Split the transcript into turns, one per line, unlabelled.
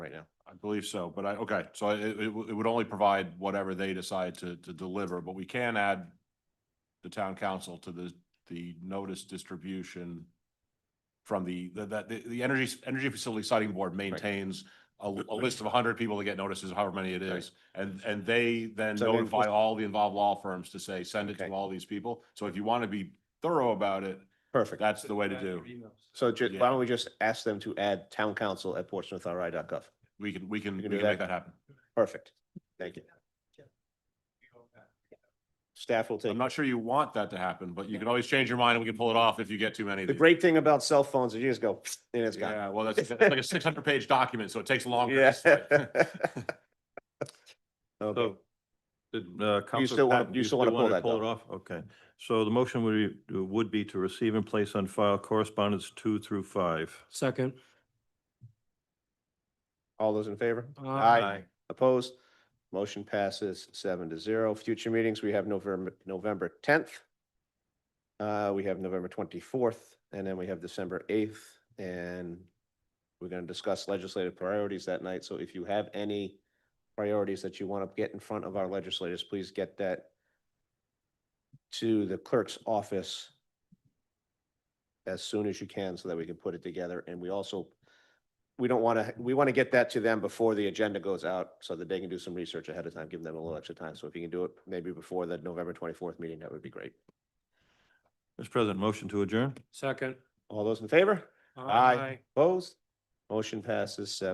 believe so, but I, okay, so it, it, w- it would only provide whatever they decide to, to deliver, but we can add the town council to the, the notice distribution from the, the- that, the, the energy, energy facility siting board maintains a, a list of hundred people that get notices, however many it is, and, and they then
So maybe
notify
just-
all the involved law firms to say, send it to
Okay.
all these people. So if you want to be thorough about it,
Perfect.
that's the way to do.
So ju-
Yeah.
why don't we just ask them to add town council at portsmouthri.gov?
We can, we can,
You
we
can
can
do
make
that.
that happen.
Perfect. Thank you. Staff will take.
I'm not sure you want that to happen, but you can always change your mind and we can pull it off if you get too many of
The
these.
great thing about cell phones is you just go and it's gone.
Yeah, well, that's, that's like a six hundred page document, so it takes a long.
Yeah. Okay.
So, did, uh, Counselor
still wanna-
Patton,
you still wanna pull
wanna
that,
Pull it
though?
off? Okay. So the motion would, be- would be to receive and place on file correspondence two through five.
Second.
All those in favor?
Aye.
Opposed? Motion passes seven to zero. Future meetings, we have November, November tenth. Uh, we have November twenty-fourth, and then we have December eighth, and we're gonna discuss legislative priorities that night. So if you have any priorities that you want to get in front of our legislators, please get that to the clerk's office as soon as you can so that we can put it together. And we also we don't want to, we want to get that to them before the agenda goes out so that they can do some research ahead of time, give them a little extra time. So if you can do it maybe before the November twenty-fourth meeting, that would be great.
Mr. President, motion to adjourn?
Second.
All those in favor? Aye. Opposed? Motion passes seven.